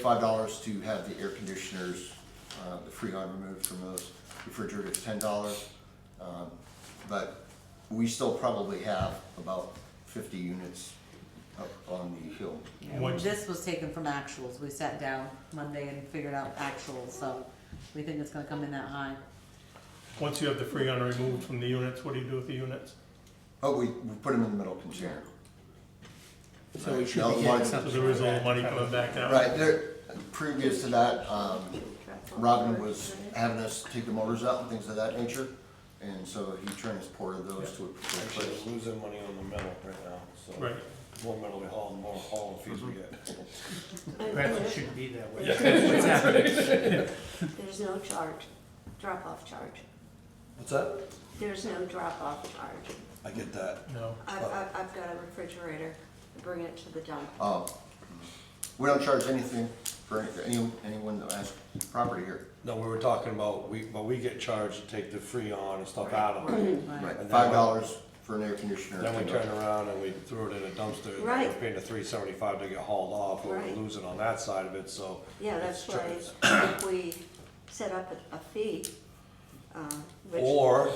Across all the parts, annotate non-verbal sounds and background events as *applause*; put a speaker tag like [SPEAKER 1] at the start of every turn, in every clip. [SPEAKER 1] five dollars to have the air conditioners, uh, the freon removed from those. Refrigerators, ten dollars. Um, But we still probably have about fifty units up on the hill.
[SPEAKER 2] Yeah,
[SPEAKER 3] What-
[SPEAKER 2] This was taken from actuals, we sat down Monday and figured out actuals, so we think it's gonna come in that high.
[SPEAKER 3] Once you have the freon removed from the units, what do you do with the units?
[SPEAKER 1] Oh, we, we put them in the middle container.
[SPEAKER 4] So we should
[SPEAKER 1] Now,
[SPEAKER 4] be
[SPEAKER 1] one-
[SPEAKER 4] getting
[SPEAKER 3] So
[SPEAKER 4] something.
[SPEAKER 3] there is
[SPEAKER 4] from
[SPEAKER 3] all the
[SPEAKER 4] that.
[SPEAKER 3] money coming back out.
[SPEAKER 1] Right, there, previous to that, um, Robin was having us take the motors out and things of that nature. And so he transported those to a
[SPEAKER 5] Actually,
[SPEAKER 1] particular place.
[SPEAKER 5] we're losing money on the metal right now, so.
[SPEAKER 3] Right.
[SPEAKER 5] More metal we haul, the more haul fees we get.
[SPEAKER 4] Perhaps it shouldn't be that way.
[SPEAKER 6] There's no charge, drop-off charge.
[SPEAKER 5] What's that?
[SPEAKER 6] There's no drop-off charge.
[SPEAKER 5] I get that.
[SPEAKER 3] No,
[SPEAKER 6] I've, I've, I've got a refrigerator, I bring it to the dump.
[SPEAKER 1] Uh, We don't charge anything for any- anyone that has property here.
[SPEAKER 5] No, we were talking about, we, but we get charged to take the freon and stuff out of it.
[SPEAKER 2] Right.
[SPEAKER 5] And then
[SPEAKER 1] Five dollars for an air conditioner.
[SPEAKER 5] Then we turn around and we throw it in a dumpster. and We're
[SPEAKER 6] Right.
[SPEAKER 5] paying the three seventy-five to get hauled off, but
[SPEAKER 6] Right.
[SPEAKER 5] we're losing on that side of it, so.
[SPEAKER 6] Yeah, that's
[SPEAKER 5] it's
[SPEAKER 6] why
[SPEAKER 5] true.
[SPEAKER 6] if we set up a, a fee, uh, which,
[SPEAKER 5] Or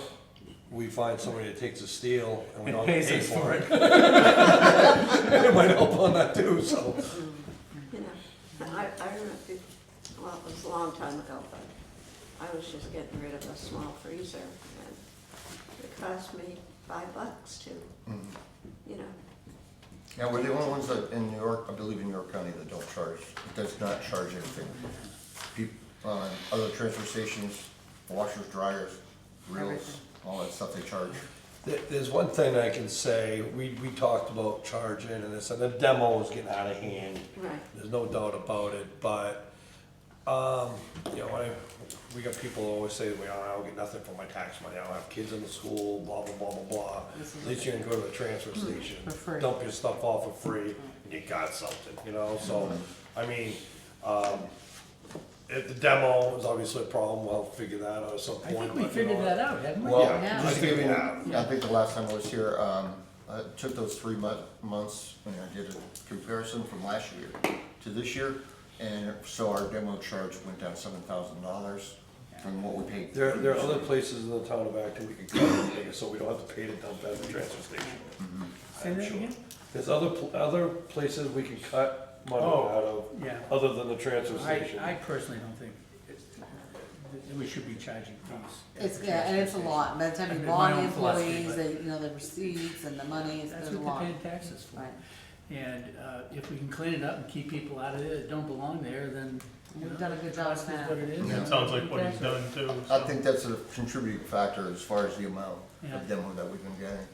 [SPEAKER 5] we find somebody that takes the steel and we don't have to
[SPEAKER 4] Pays
[SPEAKER 5] pay
[SPEAKER 4] us
[SPEAKER 5] for
[SPEAKER 4] for
[SPEAKER 5] it. *laughs* It might help on that too, so.
[SPEAKER 6] you know, I, I don't know if you, well, it was a long time ago, but I was just getting rid of a small freezer and it cost me five bucks to, you know,
[SPEAKER 1] Yeah, we're the only ones that, in New York, I believe in New York County, that don't charge, does not charge anything. People, uh, other transfer stations, washers, dryers, reels,
[SPEAKER 2] Everything.
[SPEAKER 1] all that stuff they charge.
[SPEAKER 5] There- There's one thing I can say, we, we talked about charging and this, and the demo was getting out of hand.
[SPEAKER 6] right.
[SPEAKER 5] There's no doubt about it, but, um, you know, I, we got people who always say, well, I don't get nothing for my tax money, I don't have kids in the school, blah, blah, blah, blah, blah.
[SPEAKER 2] This is-
[SPEAKER 5] At least you can go to the transfer station,
[SPEAKER 2] For free.
[SPEAKER 5] dump your stuff off for free, and you got something, you know, so, I mean, um, if the demo is obviously a problem, we'll figure that out at some
[SPEAKER 4] I
[SPEAKER 5] point.
[SPEAKER 4] think
[SPEAKER 5] but, you
[SPEAKER 4] we
[SPEAKER 5] know,
[SPEAKER 4] figured that out, haven't we?
[SPEAKER 1] Well,
[SPEAKER 2] Yeah.
[SPEAKER 1] just to give you,
[SPEAKER 5] Yeah.
[SPEAKER 1] I think the last time I was here, um, I took those three mu- months, when I did a comparison from last year to this year, and so our demo charge went down seven thousand dollars from what we paid.
[SPEAKER 5] There, there are other places in the town of Acton we can cut and make it so we don't have to pay to dump at the transfer station.
[SPEAKER 4] Say
[SPEAKER 5] I'm
[SPEAKER 4] that
[SPEAKER 5] sure.
[SPEAKER 4] again?
[SPEAKER 5] There's other, pl- other places we can cut money
[SPEAKER 4] Oh,
[SPEAKER 5] out of,
[SPEAKER 4] yeah.
[SPEAKER 5] other than the transfer
[SPEAKER 4] I,
[SPEAKER 5] station.
[SPEAKER 4] I personally don't think it's- that we should be charging fees.
[SPEAKER 2] It's, yeah, and it's a lot, by the time you
[SPEAKER 4] My
[SPEAKER 2] log
[SPEAKER 4] own philosophy,
[SPEAKER 2] employees,
[SPEAKER 4] but-
[SPEAKER 2] the, you know, the receipts and the money, it's-
[SPEAKER 4] That's
[SPEAKER 2] there's a
[SPEAKER 4] what
[SPEAKER 2] lot.
[SPEAKER 4] they're paying taxes for.
[SPEAKER 2] Right.
[SPEAKER 4] And uh, if we can clean it up and keep people out of it that don't belong there, then. you
[SPEAKER 2] We've
[SPEAKER 4] know,
[SPEAKER 2] done a good job
[SPEAKER 4] cost
[SPEAKER 2] with
[SPEAKER 4] is
[SPEAKER 2] that.
[SPEAKER 4] What it is.
[SPEAKER 1] Yeah.
[SPEAKER 4] and
[SPEAKER 3] sounds like
[SPEAKER 4] we
[SPEAKER 3] what
[SPEAKER 4] pay
[SPEAKER 3] he's
[SPEAKER 4] for it.
[SPEAKER 3] done too.
[SPEAKER 1] I
[SPEAKER 3] so.
[SPEAKER 1] think that's a contributing factor as far as the amount
[SPEAKER 4] Yeah.
[SPEAKER 1] of demo that we've been getting.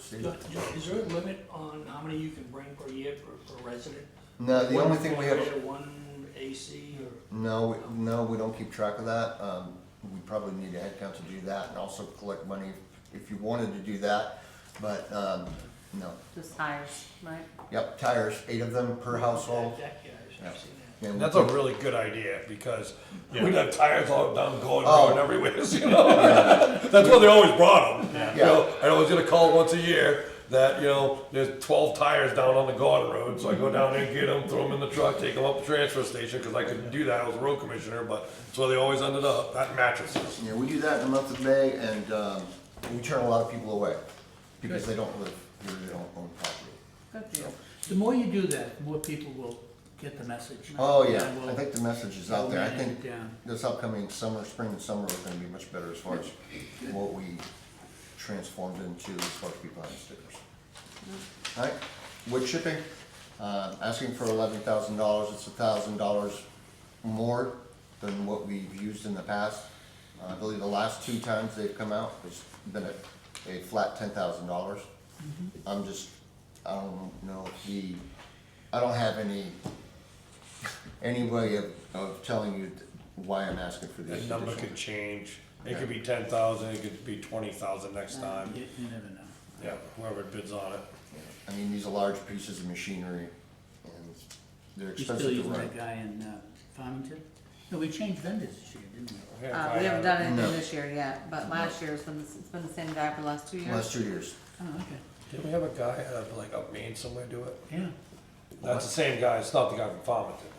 [SPEAKER 1] Steve?
[SPEAKER 7] Ju- ju- Is there a limit on how many you can bring per year per, per resident?
[SPEAKER 1] No, Uh, the only thing we have,
[SPEAKER 7] One refrigerator, One AC or,
[SPEAKER 1] no, we- no, we don't keep track of that. Um, we probably need a head count to do that and also collect money if you wanted to do that. But, um, no,
[SPEAKER 2] Just hires, right?
[SPEAKER 1] yep, tires, eight of them per household.
[SPEAKER 7] yeah, yeah, I've
[SPEAKER 1] Oh.
[SPEAKER 7] seen
[SPEAKER 1] Yeah.
[SPEAKER 7] that.
[SPEAKER 1] And
[SPEAKER 5] And
[SPEAKER 1] we
[SPEAKER 5] That's a really good idea, because
[SPEAKER 3] Yeah.
[SPEAKER 5] we'd have tires all down, going,
[SPEAKER 1] Oh.
[SPEAKER 5] going everywhere, *laughs* you know? That's why they always brought them. You
[SPEAKER 1] Yeah.
[SPEAKER 5] know, and I was gonna call once a year, that, you know, there's twelve tires down on the Gordon Road, so I go down there, get them, throw them in the truck, take them up to the transfer station, because I couldn't do that, I was a road commissioner, but, so they always ended up, at mattresses.
[SPEAKER 1] Yeah, we do that in the month of May, and um, we turn a lot of people away because
[SPEAKER 4] Good.
[SPEAKER 1] they don't live here, they don't own property.
[SPEAKER 4] Good deal. The more you do that, the more people will get the message.
[SPEAKER 1] Oh, yeah,
[SPEAKER 4] And we'll-
[SPEAKER 1] I think the message is out there. I
[SPEAKER 4] manage it
[SPEAKER 1] think
[SPEAKER 4] down.
[SPEAKER 1] this upcoming summer, spring and summer is gonna be much better as far as what we transformed into as far as people on stickers.
[SPEAKER 4] Mm.
[SPEAKER 1] Alright, wood chipping, uh, asking for eleven thousand dollars, it's a thousand dollars more than what we've used in the past. Uh, I believe the last two times they've come out, it's been a, a flat ten thousand dollars. I'm just, I don't know if the, I don't have any, any way of, of telling you why I'm asking for these
[SPEAKER 5] That number
[SPEAKER 1] additional-
[SPEAKER 5] could change, it could be ten thousand, it could be twenty thousand next
[SPEAKER 1] Um,
[SPEAKER 5] time,
[SPEAKER 4] You you never know.
[SPEAKER 5] yeah, whoever bids on it.
[SPEAKER 1] I mean, these are large pieces of machinery and they're
[SPEAKER 4] You still
[SPEAKER 1] expensive to
[SPEAKER 4] using
[SPEAKER 1] run.
[SPEAKER 4] that guy in uh, Farmington? No, we changed vendors this year, didn't we?
[SPEAKER 2] Uh, we haven't done
[SPEAKER 1] No.
[SPEAKER 2] anything this year yet, but last year's been, the s- it's been the same guy for the last two
[SPEAKER 1] Last
[SPEAKER 2] years.
[SPEAKER 1] two years.
[SPEAKER 4] Oh, okay,
[SPEAKER 5] Didn't we have a guy, uh, like up Maine somewhere do it?
[SPEAKER 4] yeah.
[SPEAKER 5] That's the same guy, it's not the guy from Farmington.